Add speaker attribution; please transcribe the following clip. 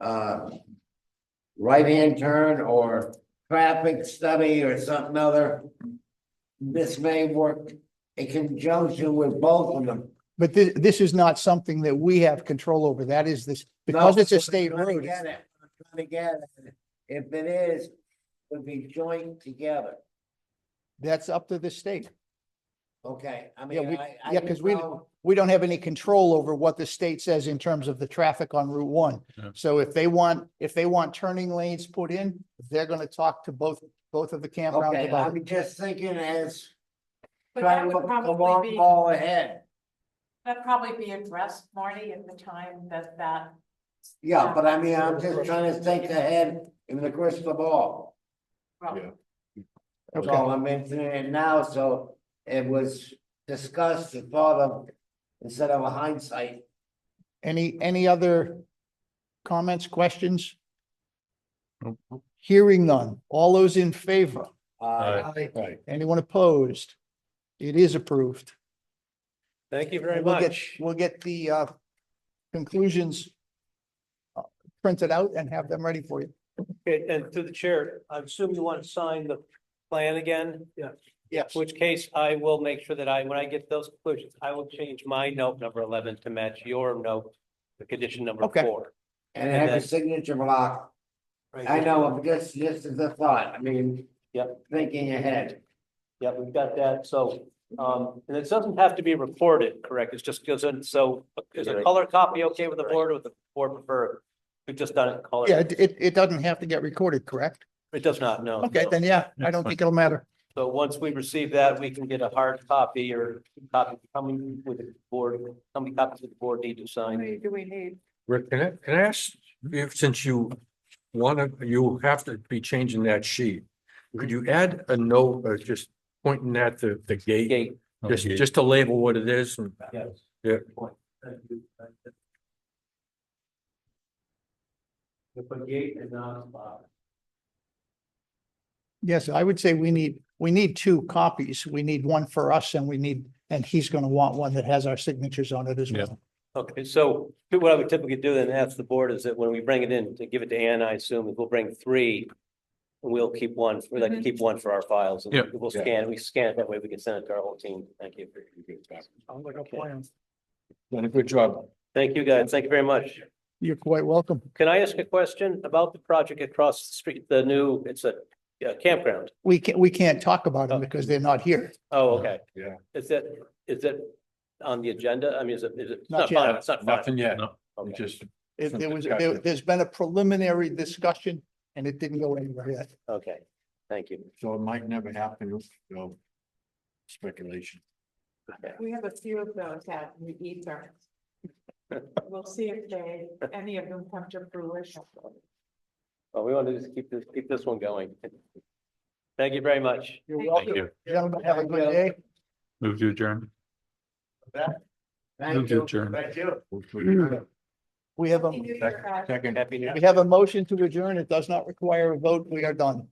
Speaker 1: uh, right-hand turn or traffic study or something other. This may work in conjunction with both of them.
Speaker 2: But thi- this is not something that we have control over. That is this, because
Speaker 1: No,
Speaker 2: it's a
Speaker 1: I'm
Speaker 2: state
Speaker 1: trying to
Speaker 2: road.
Speaker 1: get it. I'm trying to get it. If it is, would be joined together.
Speaker 2: That's up to the state.
Speaker 1: Okay, I
Speaker 2: Yeah,
Speaker 1: mean,
Speaker 2: we-
Speaker 1: I. I
Speaker 2: yeah,
Speaker 1: didn't
Speaker 2: 'cause we-
Speaker 1: know.
Speaker 2: We don't have any control over what the state says in terms of the traffic on Route One.
Speaker 3: Yeah.
Speaker 2: So if they want, if they want turning lanes put in, they're going to talk to both, both of the campgrounds
Speaker 1: Okay,
Speaker 2: about it.
Speaker 1: I'm just thinking as
Speaker 4: But
Speaker 1: trying
Speaker 4: that
Speaker 1: to
Speaker 4: would
Speaker 1: look the
Speaker 4: probably
Speaker 1: long
Speaker 4: be,
Speaker 1: ball ahead.
Speaker 4: that'd probably be addressed, Marty, at the time that that.
Speaker 1: Yeah, but I mean, I'm just trying to think ahead in the crystal ball.
Speaker 4: well,
Speaker 3: Yeah.
Speaker 1: That's
Speaker 2: Okay,
Speaker 1: all I'm mentioning it now, so it was discussed and thought of instead of a hindsight.
Speaker 2: any, any other comments, questions?
Speaker 3: Nope.
Speaker 2: Hearing none. All those in favor?
Speaker 1: Uh,
Speaker 3: Right.
Speaker 2: Anyone opposed? It is approved.
Speaker 5: Thank you very
Speaker 2: And we'll get-
Speaker 5: much.
Speaker 2: We'll get the uh, conclusions uh, printed out and have them ready for you.
Speaker 5: Okay, And to the chair, I assume you want to sign the plan again? Yeah.
Speaker 2: Yes.
Speaker 5: Which case I will make sure that I, when I get those conclusions, I will change my note number eleven to match your note, the condition number
Speaker 2: Okay.
Speaker 5: four.
Speaker 1: and have a
Speaker 5: then-
Speaker 1: signature block.
Speaker 5: Right.
Speaker 1: I know, but just, just as a thought, I mean.
Speaker 5: Yep.
Speaker 1: Thinking ahead.
Speaker 5: Yeah, we've got that, so, um, and it doesn't have to be recorded, correct? It's just, goes in. so is a color copy okay with the board or with the board prefer? We've just done it in color.
Speaker 2: Yeah, it, it- it doesn't have to get recorded, correct?
Speaker 5: It does not, no.
Speaker 2: Okay,
Speaker 5: no.
Speaker 2: then yeah, I
Speaker 3: Yeah,
Speaker 2: don't
Speaker 3: fine.
Speaker 2: think it'll matter.
Speaker 5: So once we receive that, we can get a hard copy or copy coming with the board, how many copies of the board need to
Speaker 4: How
Speaker 5: sign?
Speaker 4: many do we need?
Speaker 3: Rick, can I, can I ask, if, since you wanna, you have to be changing that sheet, could you add a note, or just pointing at the, the gate?
Speaker 5: Gate,
Speaker 3: Just, just to label what it is and.
Speaker 5: yes.
Speaker 3: Yeah.
Speaker 5: Thank you. If a gate is not a spot.
Speaker 2: Yes, I would say we need, we need two copies. We need one for us and we need, and he's going to want one that has our signatures on it as
Speaker 3: Yeah.
Speaker 2: well.
Speaker 5: Okay, so what I would typically do then ask the board is that when we bring it in to give it to Ann, I assume we'll bring three. And we'll keep one, we'd like to keep one for our files and
Speaker 3: Yeah.
Speaker 5: we'll scan, we scan it that way, we can send it to our whole team. Thank you. Okay.
Speaker 3: Done a good job.
Speaker 5: Thank you, guys. Thank you very much.
Speaker 2: You're quite welcome.
Speaker 5: Can I ask a question about the project across the street, the new, it's a yeah, campground?
Speaker 2: We can't, we can't talk about them because they're not here.
Speaker 5: Oh, okay.
Speaker 3: Yeah.
Speaker 5: Is that, is that on the agenda? I mean, is it, is it? it's
Speaker 2: Not
Speaker 5: not
Speaker 2: yet.
Speaker 5: final, It's not final.
Speaker 3: Nothing yet,
Speaker 5: Okay.
Speaker 3: just,
Speaker 2: It-
Speaker 3: Some
Speaker 2: There was,
Speaker 3: discussion.
Speaker 2: there- there's been a preliminary discussion and it didn't go anywhere yet.
Speaker 5: Okay, thank you.
Speaker 3: so it might never happen, so speculation.
Speaker 4: We have a few of those out in the ether. We'll see if they, any of them come to fruition.
Speaker 5: Well, we want to just keep this, keep this one going. Thank you very much.
Speaker 2: You're
Speaker 4: Thank
Speaker 2: welcome.
Speaker 3: you.
Speaker 2: Gentlemen, have a good day.
Speaker 3: Move to adjourn.
Speaker 1: Thank
Speaker 3: Move to
Speaker 1: you.
Speaker 3: adjourn.
Speaker 1: Thank you. Mm.
Speaker 2: We have a,
Speaker 4: Happy New Year, guys.
Speaker 3: Second.
Speaker 5: Happy New Year.
Speaker 2: we have a motion to adjourn. It does not require a vote. We are done.